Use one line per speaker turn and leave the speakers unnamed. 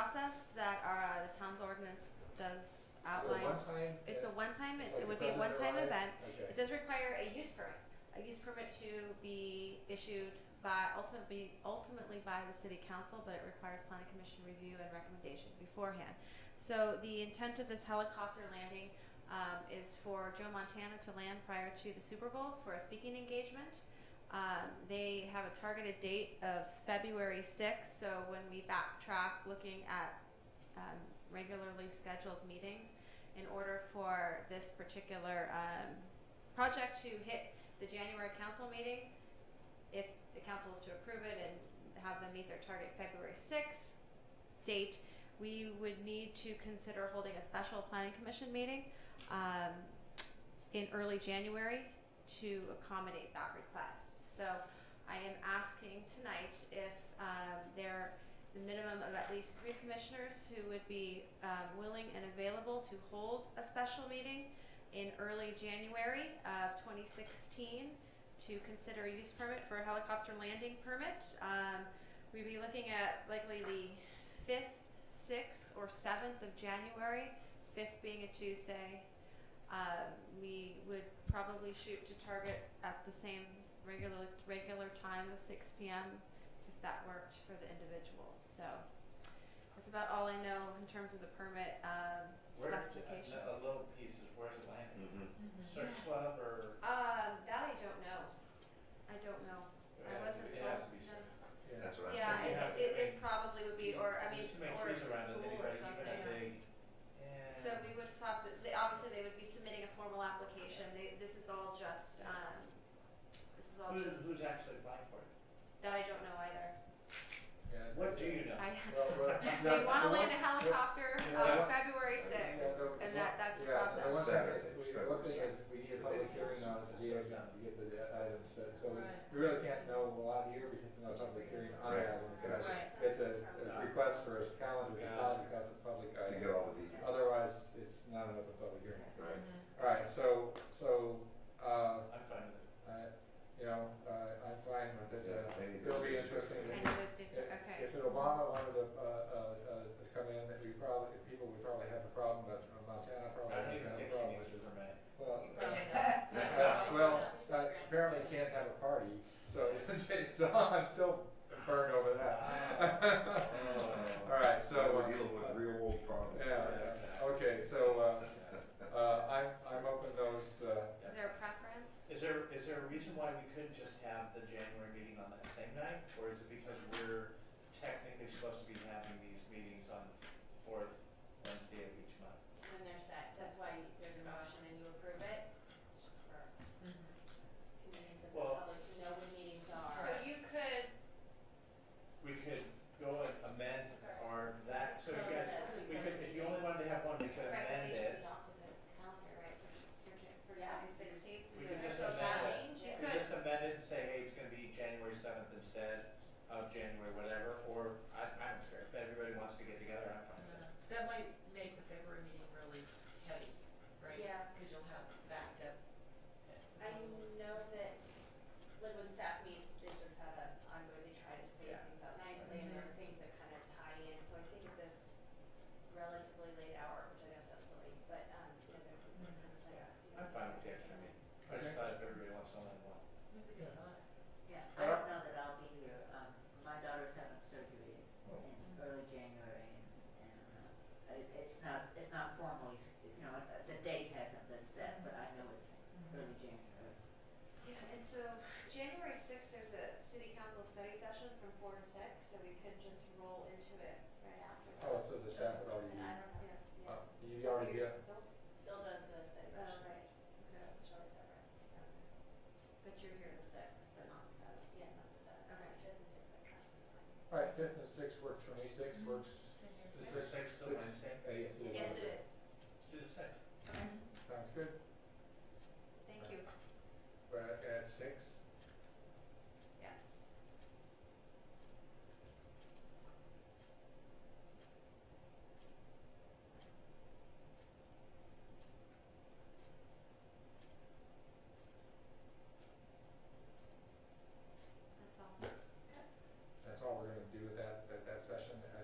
process that our, the town's ordinance does outline.
time?
It's a one-time, it, it
Like a
would be a
permanent
one-time
rise?
event.
Okay.
It does require a use permit, a use permit to be issued by ultimately, ultimately by the city council, but it requires planning commission review and recommendation beforehand. So the intent of this helicopter landing, um, is for Joe Montana to land prior to the Super Bowl for a speaking engagement. Um, they have a targeted date of February sixth, so when we backtrack looking at, um, regularly scheduled meetings, in order for this particular um, project to hit the January council meeting, if the council is to approve it and have them meet their target February sixth date, we would need to consider holding a special planning commission meeting um, in early January to accommodate that request. So I am asking tonight if um, there the minimum of at least three commissioners who would be um, willing and available to hold a special meeting in early January of 2016 to consider a use permit for a helicopter landing permit. Um, we'd be looking at likely the 5th, 6th, or 7th of January, 5th being a Tuesday. Um, we would probably shoot to target at the same regular regular time of 6 p.m if that worked for the individual. So that's about all I know in terms of the permit um,
Where, a
specifications.
a little piece is where's it landing?
Mm-hmm.
Search club or?
Um, that I don't know. I don't know. I
Yeah,
wasn't
uh, It
told,
has to be
no.
search.
That's what I'm
Yeah,
thinking.
Yeah.
it, it, it probably would be, or I mean,
There's too many
or a
trees
school
around it
or
anyway, even a
something.
big,
So we would have to. They, obviously, they would be submitting a formal application. They, this is all just. Um, this is all
Who's,
just
who's actually applying for it?
that I don't know either.
Yeah,
What do you know?
I
Well, well, no,
they want to
the
land
one-
a helicopter
the-
on
yeah.
February
Yeah, the-
6th,
the
and
one-
that, that's the
yeah,
process.
The one thing
Saturday,
is, we,
February
one thing is,
sixth.
we need a public hearing on it to be able to get the items set, so we-
Right.
we really can't know a lot here because there's no public hearing on
Right.
that one, so
Gotcha.
Right.
it's a, a request for a calendar to solve the pub- public
To
item.
get all the details.
Otherwise, it's not an open public hearing.
Mm-hmm.
Right.
Alright, so, so, uh,
I'm fine with it.
I, you know, uh, I'm fine with it,
Yeah, maybe
uh, it'll be
that's-
interesting.
I
to-
know those dates are,
If-
okay.
If an Obama wanted to, uh, uh, uh, to come in, that we probably, people would probably have a problem, but uh, Montana probably
I don't
doesn't
even
have a
think you
problem
need
with
to
it.
permit.
Well, uh,
Yeah.
well, uh, apparently you can't have a party, so, so I'm still burned over that. All right, so.
So
uh,
we're dealing with real world problems.
Yeah, yeah. okay, so, uh, uh, I'm, I'm open those, uh,
Is there a preference?
Is there, is there a reason why we couldn't just have the January meeting on that same night? Or is it because we're technically supposed to be having these meetings on the fourth Wednesday of each month?
When they're set, that's why there's a motion and you approve it, it's just for convenience of the
Well,
public to know when meetings
So
are.
you could,
We could go and amend or that, so you guys, we could, if you only wanted to have one, we could
Right, but
amend
these-
it.
you're right, for, for, for
Yeah.
sixteenth, so you
We could
could
just
go
amend
back.
it.
You
We
could,
just amend it and say, hey, it's gonna be January seventh instead of January whatever, or I, I don't care, if everybody wants to get together, I'm fine with it.
That might make the February meeting really heavy, right?
Yeah.
Because you'll have backed up. uh,
I
proposals.
know that, like when staff meets, they sort of have a ongoing, they try to space
Yeah.
things out nicely and there are things that kind of tie in, so I think at this relatively late hour, which I know sounds silly, but, um, you know, there are things that kind of play out. so you
I'm
don't
fine
have
with
to
the
do
extra
that.
meeting. I just thought if everybody wants to only one.
That's a good thought.
Yeah, I don't know that I'll be here. Um, my daughter's having surgery in early January, and, and uh, it, it's not it's not formally, s- you know, uh, the date hasn't been set, but I know it's early January.
yeah, and so January sixth, there's a city council study session from four to six, so we could just roll into it right after that.
oh, so the staff would already,
And I don't know,
Yeah.
yeah.
uh, you already
You're-
get,
Bill's, Bill does the study
Oh,
sessions,
right,
so it's totally separate,
but you're here the sixth, but not the seventh.
yeah, not the
Okay.
seventh, fifth and sixth, that comes in.
all right, fifth and sixth works for me, sixth works.
Send your
the
Is
six.
the sixth the Wednesday?
eighth is-